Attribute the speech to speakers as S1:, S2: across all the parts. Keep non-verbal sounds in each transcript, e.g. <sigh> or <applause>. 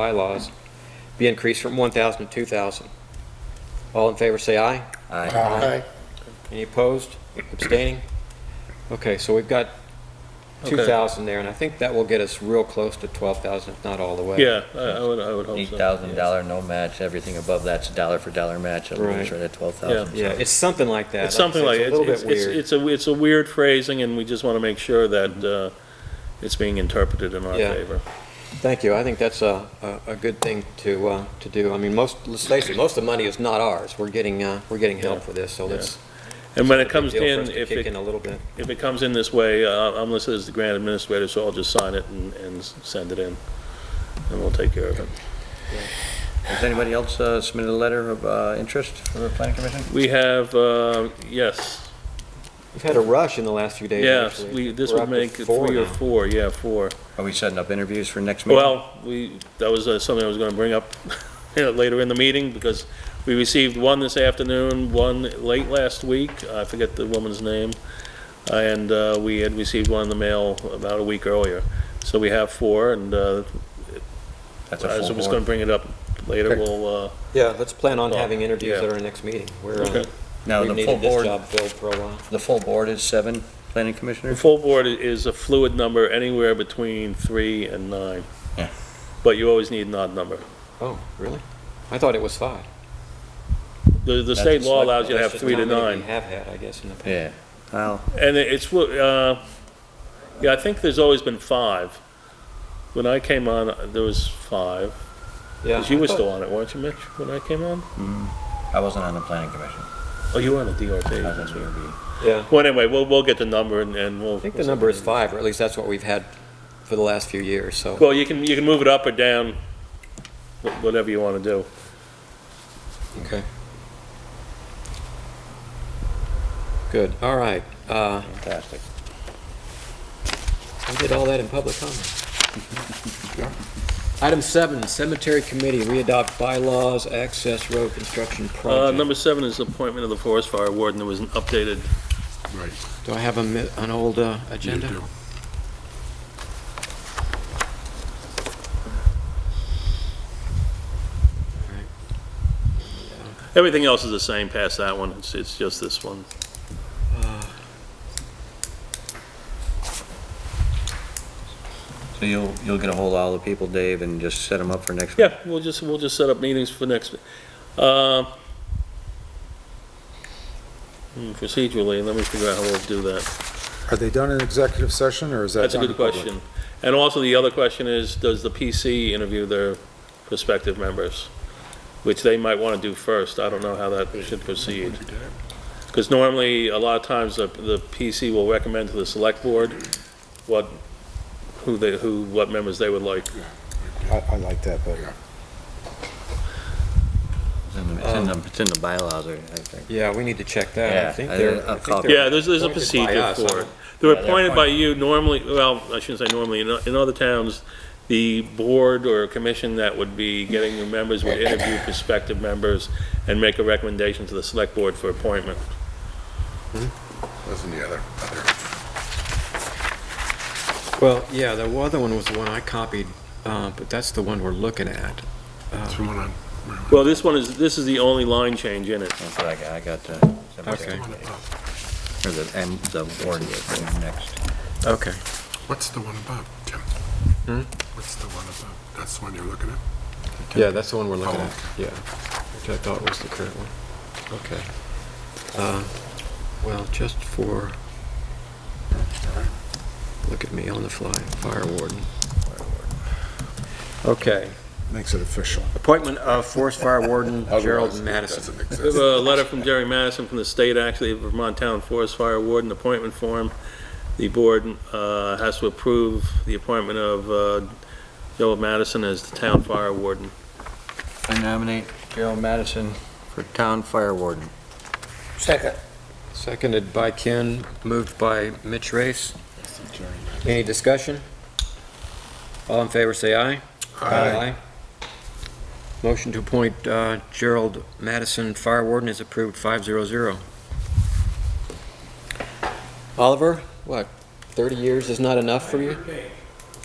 S1: bylaws be increased from 1,000 to 2,000. All in favor, say aye.
S2: Uh-huh.
S3: Aye.
S1: Any opposed, abstaining? Okay, so we've got 2,000 there, and I think that will get us real close to 12,000, if not all the way.
S4: Yeah, I, I would, I would hope so.
S2: Eight thousand dollar no match, everything above that's a dollar for dollar match, I'm
S1: Right.
S2: sure that twelve thousand.
S1: Yeah, it's something like that.
S4: It's something like,
S1: I said,
S4: it's, it's,
S1: It's a little bit weird.
S4: it's a, it's a weird phrasing, and we just want to make sure that, uh, it's being interpreted in our
S1: Yeah.
S4: favor.
S1: Thank you, I think that's a, a a good thing to, uh, to do. I mean, most, let's face it, most of the money is not ours. We're getting, uh, we're getting help
S4: Yeah.
S1: for this, so
S4: Yeah.
S1: let's.
S4: And when it
S1: it's a big
S4: comes
S1: deal for
S4: in,
S1: us to
S4: if
S1: Kick in
S4: it,
S1: a little bit.
S4: if it comes in this way, uh, I'm listed as the grant administrator, so I'll just sign it and, and s- send it in, and we'll take care of it.
S2: Has anybody else uh, submitted a letter of uh, interest for the planning commission?
S4: We have, uh, yes,
S1: We've had a rush in the last few days,
S4: yes,
S1: actually.
S4: we, this
S1: We're
S4: would
S1: up to
S4: make it
S1: four
S4: three or
S1: now.
S4: four, yeah, four.
S2: Are we setting up interviews for next meeting?
S4: Well, we, that was uh, something I was gonna bring up <laughs> later in the meeting, because we received one this afternoon, one late last week, I forget the woman's name, and uh, we had received one in the mail about a week earlier. So we have four, and uh,
S2: That's
S4: I
S2: a
S4: was
S2: full
S4: just gonna
S2: board.
S4: bring it up later,
S2: Okay.
S4: we'll, uh,
S1: Yeah, let's plan on
S4: Well,
S1: having interviews
S4: yeah.
S1: at our next meeting. We're, uh,
S4: Okay.
S2: Now,
S1: we've
S2: the full
S1: needed this
S2: board,
S1: job filled for a while.
S2: the full board is seven planning
S4: the
S2: commissioners?
S4: full board i- is a fluid number, anywhere between three and nine.
S2: Yeah.
S4: But you always need an odd number.
S1: Oh, really? I thought it was five.
S4: The, the
S2: That's
S4: state
S2: a
S4: law
S2: select-
S4: allows you to have
S1: That's just
S4: three
S1: how
S4: to
S1: many
S4: nine.
S1: We have had, I guess, in the past.
S2: Yeah. Well,
S4: And it- it's, what, uh, yeah, I think there's always been five. When I came on, uh, there was five,
S1: Yeah,
S4: 'Cause you
S1: I
S4: were
S1: thought-
S4: still on it, weren't you, Mitch, when I came on?
S2: mm, I wasn't on the planning commission.
S4: Oh, you were on the DRB.
S2: I was
S4: that's
S2: on the
S4: right.
S2: DRB.
S1: Yeah,
S4: Well, anyway, we'll, we'll get the number and, and we'll.
S1: I think the number is five, or at least that's what we've had for the last few years, so.
S4: Well, you can, you can move it up or down, wh- whatever you want to do.
S1: Okay. Good, all right. Uh,
S2: Fantastic.
S1: We did all that in public
S2: <laughs>
S1: comment. Item seven, cemetery committee, we adopt bylaws, access road construction
S4: Uh, number
S1: project.
S4: seven is appointment of the forest fire warden. There was an updated,
S3: Right.
S1: Do I have a mi- an old uh, agenda?
S3: do.
S4: everything else is the same past that one. It's, it's just this one.
S2: So you'll, you'll get a hold of all the people, Dave, and just set them up for next?
S4: Yeah, we'll just, we'll just set up meetings for next, uh, hmm, procedurally, let me figure out how we'll do that.
S5: Are they done in executive session, or is that
S4: That's a
S5: done
S4: good
S5: in public?
S4: question. And also, the other question is, does the PC interview their prospective members? Which they might want to do first, I don't know how that should proceed. Because normally, a lot of times, the, the PC will recommend to the select board what, who they, who, what members they would like.
S5: I, I like that better.
S2: It's in the- it's in the- it's in the bylaws, I I think.
S1: Yeah, we need to check that. I
S2: Yeah,
S1: think
S2: I-
S1: they're.
S2: I'll
S1: I think
S2: call-
S1: they're
S4: Yeah, there's, there's a
S1: appointed by
S4: procedure
S1: us,
S4: for
S1: huh?
S4: it. They're
S2: they're
S4: appointed by you normally, well, I shouldn't say normally, in, o- in other towns, the board or commission that would be getting the members would interview prospective members and make a recommendation to the select board for appointment.
S3: Wasn't the other, other.
S1: Well, yeah, the other one was the one I copied, uh, but that's the one we're looking at.
S3: That's the one I'm,
S4: Well, this one is, this is the only line change in it.
S2: That's what I got, I got uh, the.
S1: Okay.
S2: Or the, and the warden is next.
S1: Okay.
S3: what's the one above, Jim? What's the one above? That's the one you're looking at?
S1: Yeah, that's the one we're looking
S3: Oh.
S1: at, yeah, which I thought was the current one. Okay. Uh, Well, just for, look at me on the fly, fire warden. Okay,
S5: Makes it official.
S1: appointment of forest fire warden Gerald Madison.
S3: Doesn't
S4: We have
S3: exist.
S4: a letter from Jerry Madison from the state, actually, Vermont Town Forest Fire Warden appointment form. The board uh, has to approve the appointment of uh, Joe Madison as the town fire warden.
S2: I nominate Gerald Madison for town fire warden.
S6: Second.
S1: Seconded by Ken, moved by Mitch Race. Any discussion? All in favor, say aye.
S3: Uh,
S1: Aye. Motion to appoint uh, Gerald Madison Fire Warden is approved, 500. Oliver, what, 30 years is not enough for you?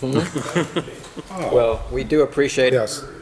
S1: Mhm. Well, we do appreciate
S5: Yes.